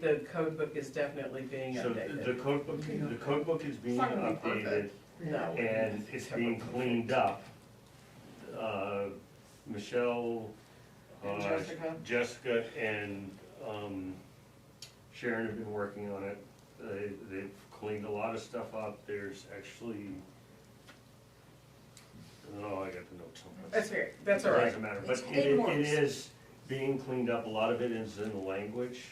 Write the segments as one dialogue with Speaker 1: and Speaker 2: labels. Speaker 1: The code book is definitely being
Speaker 2: So the
Speaker 1: updated.
Speaker 2: code book, the code book is being
Speaker 3: It's not gonna be
Speaker 2: updated
Speaker 3: perfect.
Speaker 1: No.
Speaker 2: and it's being cleaned up. Uh, Michelle,
Speaker 3: And
Speaker 2: uh,
Speaker 3: Jessica?
Speaker 2: Jessica and um, Sharon have been working on it. They, they've cleaned a lot of stuff up. There's actually, oh, I got the notes somewhere.
Speaker 1: That's fair, that's all right.
Speaker 2: Doesn't matter,
Speaker 3: It's
Speaker 2: but
Speaker 3: clean
Speaker 2: it, it
Speaker 3: works.
Speaker 2: is being cleaned up, a lot of it is in the language.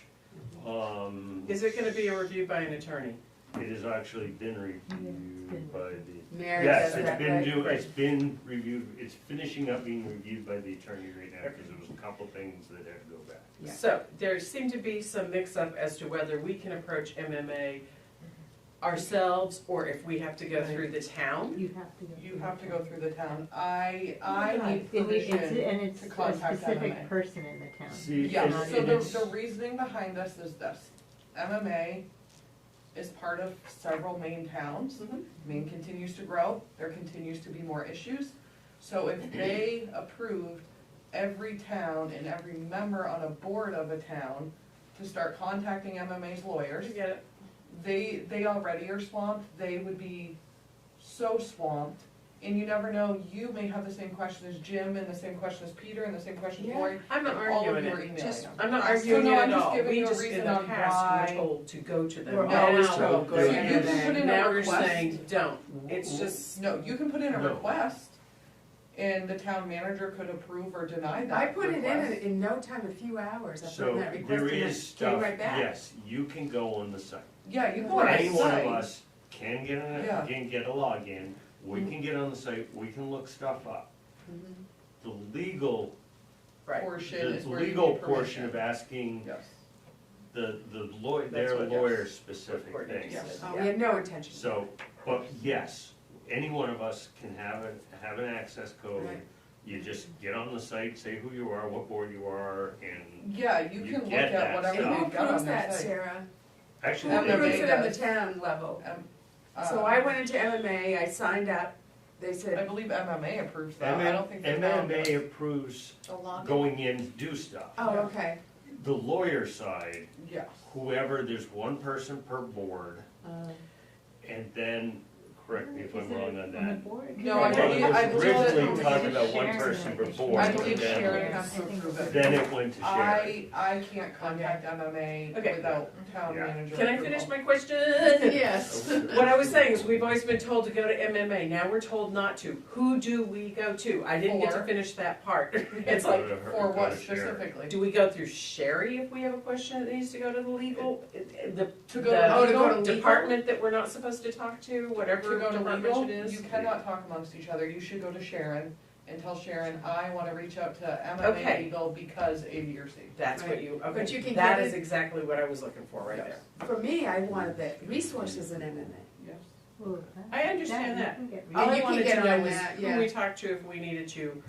Speaker 2: Um,
Speaker 1: Is it gonna be reviewed by an attorney?
Speaker 2: It has actually been reviewed by the,
Speaker 3: Mary
Speaker 2: yes,
Speaker 3: does
Speaker 2: it's
Speaker 3: that,
Speaker 2: been
Speaker 3: right?
Speaker 2: due, it's been reviewed, it's finishing up being reviewed by the attorney right now, because there was a couple things that had to go back.
Speaker 3: Yeah.
Speaker 1: So there seemed to be some mix-up as to whether we can approach MMA ourselves or if we have to go through the town.
Speaker 4: You have to go.
Speaker 3: You
Speaker 4: through
Speaker 3: have to
Speaker 4: the
Speaker 3: go
Speaker 4: town.
Speaker 3: through the town. I, I need
Speaker 4: It- it's-
Speaker 3: permission.
Speaker 4: And it's
Speaker 3: to
Speaker 4: a
Speaker 3: contact
Speaker 4: specific
Speaker 3: MMA.
Speaker 4: person in the town.
Speaker 2: See,
Speaker 3: Yeah,
Speaker 2: and-
Speaker 3: so
Speaker 2: and
Speaker 3: the,
Speaker 2: it's-
Speaker 3: the reasoning behind this is this. MMA is part of several main towns.
Speaker 1: Mhm.
Speaker 3: Maine continues to grow, there continues to be more issues. So if they approved every town and every member on a board of a town to start contacting MMA's lawyers,
Speaker 1: You get it?
Speaker 3: they, they already are swamped, they would be so swamped. And you never know, you may have the same question as Jim and the same question as Peter and the same question as Lori.
Speaker 1: I'm not
Speaker 3: All of
Speaker 1: arguing
Speaker 3: you are
Speaker 1: it,
Speaker 3: emailing
Speaker 1: just,
Speaker 3: them.
Speaker 1: I'm not
Speaker 3: So
Speaker 1: arguing
Speaker 3: no,
Speaker 1: it
Speaker 3: I'm
Speaker 1: at
Speaker 3: just
Speaker 1: all.
Speaker 3: giving
Speaker 1: We
Speaker 3: you a
Speaker 1: just, in
Speaker 3: reason
Speaker 1: the
Speaker 3: on
Speaker 1: past,
Speaker 3: why-
Speaker 1: were told to go to them.
Speaker 4: We're
Speaker 1: Now-
Speaker 4: always
Speaker 1: now-
Speaker 4: told,
Speaker 2: go to
Speaker 1: now you're-
Speaker 3: MMA. put in a
Speaker 1: Now you're
Speaker 3: request.
Speaker 1: saying, don't. It's just,
Speaker 3: No, you can put in a
Speaker 2: No.
Speaker 3: request, and the town manager could approve or deny that
Speaker 5: I put it in
Speaker 3: request.
Speaker 5: in no time, a few hours, I put in
Speaker 2: So
Speaker 5: that request
Speaker 2: there
Speaker 5: and
Speaker 2: is
Speaker 5: it came
Speaker 2: stuff,
Speaker 5: right back.
Speaker 2: yes, you can go on the site.
Speaker 3: Yeah, you go on
Speaker 2: Any
Speaker 3: the
Speaker 2: one of
Speaker 3: site.
Speaker 2: us can get on,
Speaker 3: Yeah. Mm-hmm.
Speaker 2: it, can get a login, we can get on the site, we can look stuff up. The legal,
Speaker 1: right.
Speaker 3: Portion
Speaker 2: the
Speaker 3: is where you
Speaker 2: legal
Speaker 3: need
Speaker 2: portion
Speaker 3: permission.
Speaker 2: of asking
Speaker 3: Yes.
Speaker 2: the, the lawyer,
Speaker 1: That's
Speaker 2: their
Speaker 1: what-
Speaker 2: lawyer
Speaker 1: yes.
Speaker 2: specific
Speaker 1: Courtney
Speaker 2: things.
Speaker 1: just said,
Speaker 5: Oh,
Speaker 1: yeah.
Speaker 5: we had no intention.
Speaker 2: So, but yes, any one of us can have a, have an access code.
Speaker 5: Right.
Speaker 2: You just get on the site, say who you are, what board you are, and
Speaker 3: Yeah, you
Speaker 2: You
Speaker 3: can look
Speaker 2: get that
Speaker 3: at whatever
Speaker 5: And
Speaker 2: stuff.
Speaker 5: who
Speaker 3: they've got on
Speaker 5: approves
Speaker 3: their
Speaker 5: that,
Speaker 3: site.
Speaker 5: Sarah? Who
Speaker 2: actually,
Speaker 3: That would
Speaker 5: approves
Speaker 3: be-
Speaker 2: they-
Speaker 5: it on the town level?
Speaker 3: Um,
Speaker 5: So
Speaker 3: uh,
Speaker 5: I went into MMA, I signed up, they
Speaker 3: I
Speaker 5: said,
Speaker 3: believe MMA approves that, I don't think. the town does.
Speaker 2: MMA approves going in to do stuff.
Speaker 5: oh, okay,
Speaker 2: The lawyer side,
Speaker 3: Yes.
Speaker 2: whoever, there's one person per board,
Speaker 3: Oh.
Speaker 2: and then, correct me if
Speaker 4: Is
Speaker 2: I'm
Speaker 4: it
Speaker 2: wrong on
Speaker 4: On the
Speaker 2: that.
Speaker 4: board?
Speaker 3: No,
Speaker 2: Well,
Speaker 3: I believe- I
Speaker 2: it was
Speaker 3: believe that-
Speaker 2: originally talking about one
Speaker 4: Sharon's
Speaker 2: person per
Speaker 4: not-
Speaker 2: board,
Speaker 3: I
Speaker 2: and
Speaker 3: believe
Speaker 2: then-
Speaker 3: Sharon has to
Speaker 4: I think
Speaker 3: approve
Speaker 4: it's-
Speaker 3: it.
Speaker 2: Then it went to Sharon.
Speaker 3: I, I can't contact MMA
Speaker 1: Okay.
Speaker 3: without town
Speaker 2: Yeah.
Speaker 3: manager.
Speaker 1: Can I
Speaker 3: approval.
Speaker 1: finish my question?
Speaker 5: yes.
Speaker 1: What I was saying is, we've always been told to go to MMA, now we're told not to. Who do we go to? I didn't get to
Speaker 3: Or-
Speaker 1: finish that part. It's
Speaker 2: Go
Speaker 1: like,
Speaker 2: to her-
Speaker 3: For
Speaker 2: go
Speaker 3: what
Speaker 2: to Sharon.
Speaker 3: specifically?
Speaker 1: do we go through Sherry if we have a question that needs to go to the legal? The,
Speaker 3: To go to
Speaker 5: Oh, to go
Speaker 1: the
Speaker 5: to legal?
Speaker 1: department that we're not supposed to talk to, whatever
Speaker 3: To go to legal,
Speaker 1: department it
Speaker 3: you
Speaker 1: is?
Speaker 3: cannot talk amongst each other, you should go to Sharon and tell Sharon, I wanna reach out to
Speaker 1: Okay.
Speaker 3: MMA Legal because ADRC.
Speaker 1: That's what
Speaker 5: Right.
Speaker 1: you,
Speaker 5: But you
Speaker 1: okay,
Speaker 5: can
Speaker 1: that
Speaker 5: get
Speaker 1: is
Speaker 5: it-
Speaker 1: exactly what I was looking for right there.
Speaker 3: Yes.
Speaker 5: For me, I wanted the resources in MMA.
Speaker 3: Yes.
Speaker 4: Ooh, that-
Speaker 1: I understand
Speaker 4: you
Speaker 1: that.
Speaker 4: can get
Speaker 5: Oh,
Speaker 1: All
Speaker 5: you
Speaker 4: rid
Speaker 1: I
Speaker 5: can
Speaker 1: wanted
Speaker 5: get
Speaker 1: to
Speaker 5: on
Speaker 1: know was
Speaker 5: that,
Speaker 1: who
Speaker 5: yeah.
Speaker 1: we talked to if we needed to,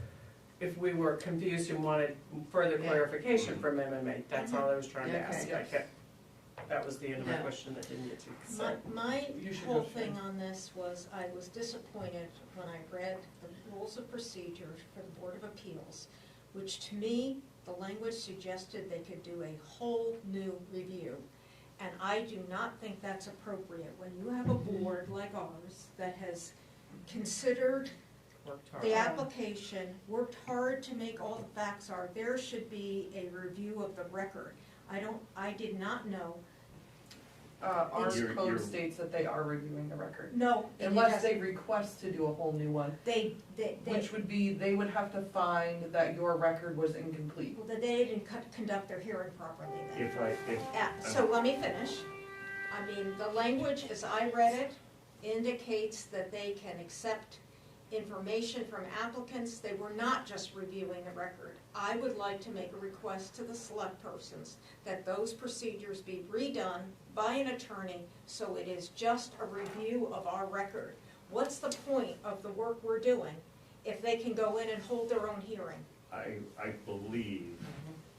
Speaker 1: if we were confused and wanted further
Speaker 5: Yeah.
Speaker 1: clarification from MMA. That's
Speaker 6: Mm-hmm.
Speaker 1: all I was trying to
Speaker 5: Yeah, okay.
Speaker 1: ask. I kept, that was the end of my
Speaker 6: No.
Speaker 1: question that didn't get to.
Speaker 6: My,
Speaker 1: Sorry.
Speaker 6: my
Speaker 3: You should
Speaker 6: whole
Speaker 3: go through.
Speaker 6: thing on this was, I was disappointed when I read the rules of procedure for the Board of Appeals, which to me, the language suggested they could do a whole new review. And I do not think that's appropriate when you have a
Speaker 3: Mm-hmm.
Speaker 6: board like ours that has considered
Speaker 1: Worked hard.
Speaker 6: the application, worked hard to make all the facts are, there should be a review of the record. I don't, I did not know,
Speaker 3: Uh, our
Speaker 2: You're-
Speaker 3: code
Speaker 2: you're-
Speaker 3: states that they are reviewing the record,
Speaker 6: no, it
Speaker 3: unless
Speaker 6: doesn't.
Speaker 3: they request to do a whole new one,
Speaker 6: They, they, they.
Speaker 3: which would be, they would have to find that your record was incomplete.
Speaker 6: Well, then they didn't co- conduct their hearing properly then.
Speaker 2: If I, if
Speaker 6: Yeah, so let me finish. I mean, the language, as I read it, indicates that they can accept information from applicants. They were not just reviewing the record. I would like to make a request to the select persons that those procedures be redone by an attorney so it is just a review of our record. What's the point of the work we're doing if they can go in and hold their own hearing?
Speaker 2: I, I believe,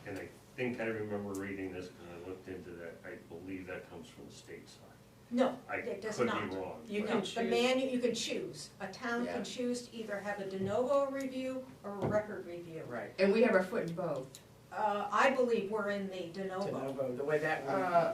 Speaker 2: and I think I remember reading this because I looked into that, I believe that comes from the state side.
Speaker 6: No,
Speaker 2: I
Speaker 6: It does
Speaker 2: could
Speaker 6: not.
Speaker 2: be wrong.
Speaker 1: You
Speaker 2: but-
Speaker 1: can
Speaker 6: No,
Speaker 1: choose.
Speaker 6: The man, you can choose. A town can choose to either have a de novo review or a record review.
Speaker 1: Right.
Speaker 5: And we have our foot in both.
Speaker 7: uh, I believe we're in the de novo.
Speaker 6: De novo, the way that one.
Speaker 3: Uh,